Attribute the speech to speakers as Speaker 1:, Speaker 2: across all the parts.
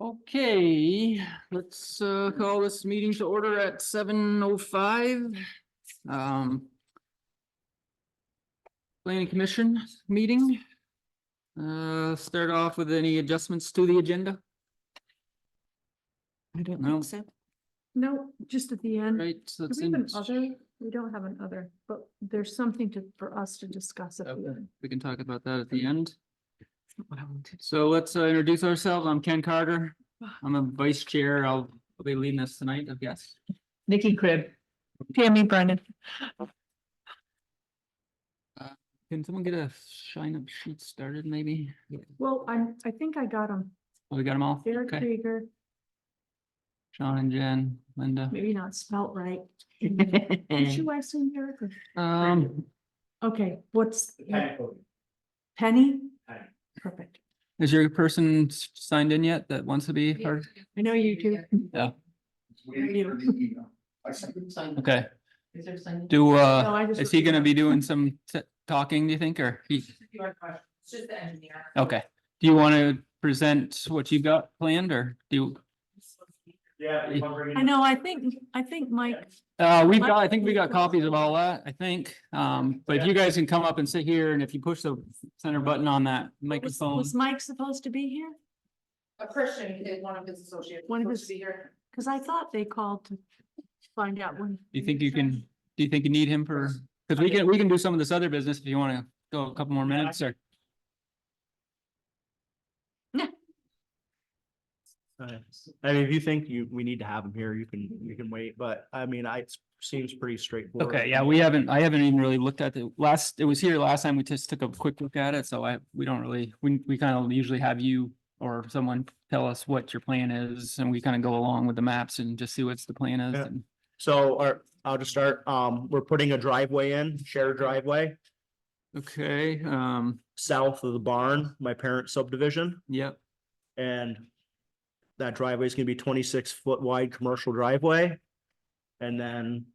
Speaker 1: Okay, let's uh call this meeting to order at seven oh five. Um. Planning Commission meeting. Uh, start off with any adjustments to the agenda,
Speaker 2: I don't
Speaker 1: No.
Speaker 2: think so.
Speaker 3: No, just at the end.
Speaker 1: right? So
Speaker 3: Do
Speaker 1: it's
Speaker 3: we have
Speaker 1: in,
Speaker 3: an other? We don't have an other, but there's something to, for us to discuss at the
Speaker 1: Okay.
Speaker 3: end.
Speaker 1: we can talk about that at the end. So let's uh, introduce ourselves. I'm Ken Carter. I'm a vice chair. I'll I'll be leading this tonight, I guess.
Speaker 2: Nikki Crib.
Speaker 3: Tammy Brennan.
Speaker 1: Uh, Can someone get a shine up sheet started, maybe?
Speaker 3: Well, I'm, I think I got them.
Speaker 1: Oh, we got them all?
Speaker 3: Derek
Speaker 1: Okay,
Speaker 3: Krieger,
Speaker 1: Sean and Jen, Linda.
Speaker 3: maybe not spelt right. Did
Speaker 1: Um,
Speaker 3: you last name Derek? or- Okay, what's? uh, Penny?
Speaker 4: Penny.
Speaker 3: Perfect.
Speaker 1: is your person s- signed in yet that wants to be part?
Speaker 3: I know you do.
Speaker 4: Waiting for the email. I sent it to you.
Speaker 1: Okay,
Speaker 2: Is there something?
Speaker 1: do,
Speaker 3: No,
Speaker 1: uh,
Speaker 3: I just
Speaker 1: is
Speaker 3: looked
Speaker 1: he
Speaker 3: it
Speaker 1: gonna
Speaker 3: up.
Speaker 1: be doing some t- talking, do you think, or he,
Speaker 2: It's just the engineer.
Speaker 1: okay. Do you wanna present what you've got planned or do, you-
Speaker 4: Yeah. if I'm
Speaker 3: I
Speaker 4: bringing-
Speaker 3: know, I think, I think Mike,
Speaker 1: uh, we've got, I think we got copies of all that, I think. Um, but if you guys can come up and sit here and if you push the center button on that
Speaker 3: was,
Speaker 1: microphone.
Speaker 3: was Mike supposed to be here?
Speaker 2: A Christian, he did one of his associates.
Speaker 3: One of his-
Speaker 2: supposed to be here.
Speaker 3: Cause I thought they called to find out when.
Speaker 1: Do you think you can, do you think you need him for, because we can, we can do some of this other business if you want to go a couple more minutes or.
Speaker 5: I mean, if you think you, we need to have them here, you can, you can wait, but I mean, I, it seems pretty straightforward.
Speaker 1: Okay, yeah, we haven't, I haven't even really looked at the last, it was here last time. We just took a quick look at it. So I, we don't really, we, we kind of usually have you or someone tell us what your plan is and we kind of go along with the maps and just see what's the plan is.
Speaker 5: Yeah.
Speaker 1: and-
Speaker 5: So, our, I'll just start, um, we're putting a driveway in, shared driveway,
Speaker 1: Okay, um,
Speaker 5: south of the barn, my parent subdivision,
Speaker 1: yep,
Speaker 5: and that driveway is gonna be twenty-six foot wide commercial driveway. And then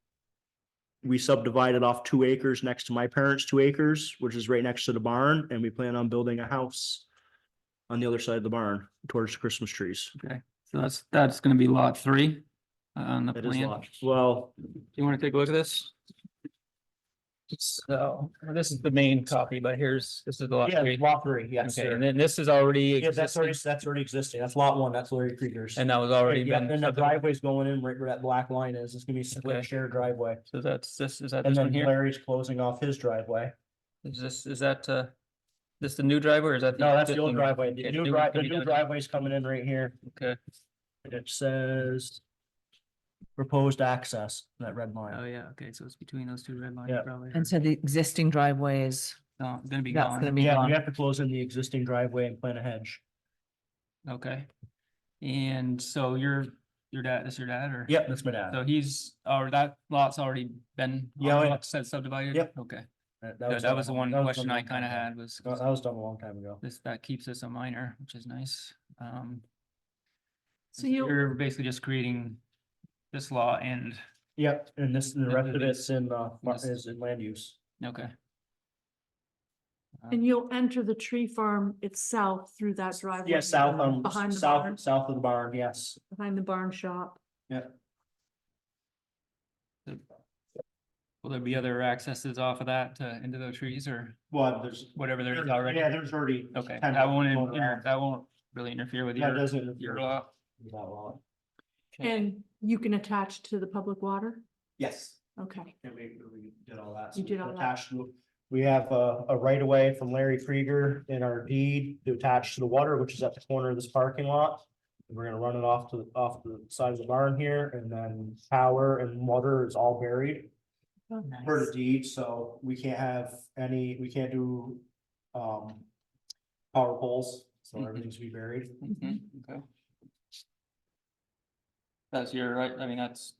Speaker 5: we subdivided off two acres next to my parents' two acres, which is right next to the barn, and we plan on building a house on the other side of the barn towards the Christmas trees.
Speaker 1: so that's, that's going to be lot three on the
Speaker 5: That is
Speaker 1: plan.
Speaker 5: lot, well,
Speaker 1: Do you want to take a look at this? So, this is the main copy, but here's, this is the lot
Speaker 5: yeah,
Speaker 1: three.
Speaker 5: lot three, yes,
Speaker 1: Okay,
Speaker 5: sir.
Speaker 1: and then this is already
Speaker 5: Yeah, that's already,
Speaker 1: existing,
Speaker 5: that's already existing, that's lot one, that's Larry Krieger's.
Speaker 1: and that was already
Speaker 5: Yeah,
Speaker 1: been,
Speaker 5: and the
Speaker 1: subdivided.
Speaker 5: driveway's going in right where that black line is, it's gonna be
Speaker 1: Okay.
Speaker 5: split shared driveway.
Speaker 1: so that's, this, is that
Speaker 5: And
Speaker 1: this one
Speaker 5: then
Speaker 1: here?
Speaker 5: Larry's closing off his driveway.
Speaker 1: Is this, is that, uh, this the new driver, or is that?
Speaker 5: No, that's the
Speaker 1: existing one?
Speaker 5: old driveway, the
Speaker 1: Okay,
Speaker 5: new
Speaker 1: new-
Speaker 5: drive, the
Speaker 1: new
Speaker 5: new
Speaker 1: driveway.
Speaker 5: driveway's coming in right here,
Speaker 1: Okay,
Speaker 5: and it says proposed access, that red
Speaker 1: oh
Speaker 5: line.
Speaker 1: yeah, okay, so it's between those two red lines
Speaker 5: Yeah.
Speaker 1: probably.
Speaker 2: And so the existing driveway is,
Speaker 1: No, it's gonna be
Speaker 2: that's gonna
Speaker 1: gone,
Speaker 2: be
Speaker 5: Yeah, we
Speaker 2: gone.
Speaker 5: have to close in the existing driveway and plant a hedge.
Speaker 1: okay. And so your, your dad, is your dad, or?
Speaker 5: Yep, that's my dad.
Speaker 1: So he's, or that lot's already been,
Speaker 5: Yeah,
Speaker 1: all
Speaker 5: yeah.
Speaker 1: the lots said subdivided?
Speaker 5: Yep.
Speaker 1: Okay,
Speaker 5: That-
Speaker 1: Good, that was the one question
Speaker 5: done a Uh-huh.
Speaker 1: I
Speaker 5: long time
Speaker 1: kinda
Speaker 5: ago.
Speaker 1: had was.
Speaker 5: That that was done a long time ago.
Speaker 1: This, that keeps us a minor, which is nice. Um,
Speaker 3: So you,
Speaker 1: You're basically just creating this law and,
Speaker 5: Yep, and this, the
Speaker 1: And
Speaker 5: rest of
Speaker 1: then-
Speaker 5: it's in, uh, mar-
Speaker 1: Yes.
Speaker 5: is in land use.
Speaker 1: okay.
Speaker 3: and you'll enter the tree farm itself through that driveway.
Speaker 5: Yeah, south, um,
Speaker 3: Behind the barn,
Speaker 5: south, south of the barn, yes.
Speaker 3: behind the barn shop.
Speaker 1: Will there be other accesses off of that to, into the trees or
Speaker 5: Well, there's.
Speaker 1: whatever there is
Speaker 5: there's-
Speaker 1: already?
Speaker 5: Yeah, there's already.
Speaker 1: Okay,
Speaker 5: kind
Speaker 1: that
Speaker 5: of
Speaker 1: won't,
Speaker 5: going
Speaker 1: inter-
Speaker 5: around.
Speaker 1: that won't really interfere with
Speaker 5: That
Speaker 1: your,
Speaker 5: doesn't.
Speaker 1: your law.
Speaker 5: That lot.
Speaker 1: Okay.
Speaker 3: And you can attach to the public water?
Speaker 5: Yes.
Speaker 3: Okay,
Speaker 5: And we, we did all that.
Speaker 3: You
Speaker 5: so
Speaker 3: did all that.
Speaker 5: attached to- We have a, a right of way from Larry Krieger in our deed to attach to the water, which is at the corner of this parking lot. We're gonna run it off to, the off the side of the barn here and then power and water is all buried. per the deed, so we can't have any, we can't do, um, power poles, so
Speaker 1: Mhm.
Speaker 5: everything's be buried.
Speaker 1: Mhm, okay. That's your right, I mean, that's,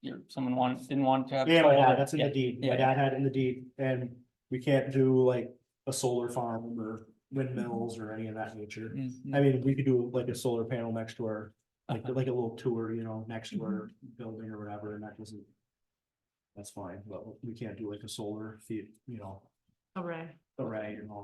Speaker 1: your, someone wanted, didn't want to have.
Speaker 5: Yeah, my
Speaker 1: solar.
Speaker 5: dad, that's in the
Speaker 1: Yeah,
Speaker 5: deed, my
Speaker 1: yeah.
Speaker 5: dad had it in the deed, and we can't do like a solar farm or windmills or any of that nature.
Speaker 1: Mhm.
Speaker 5: I mean, we could do like a solar panel next to our, like, like a little tour, you know, next to our building or whatever, and that doesn't. That's fine, but we can't do like a solar, fe- you know,
Speaker 3: all right.
Speaker 5: array and all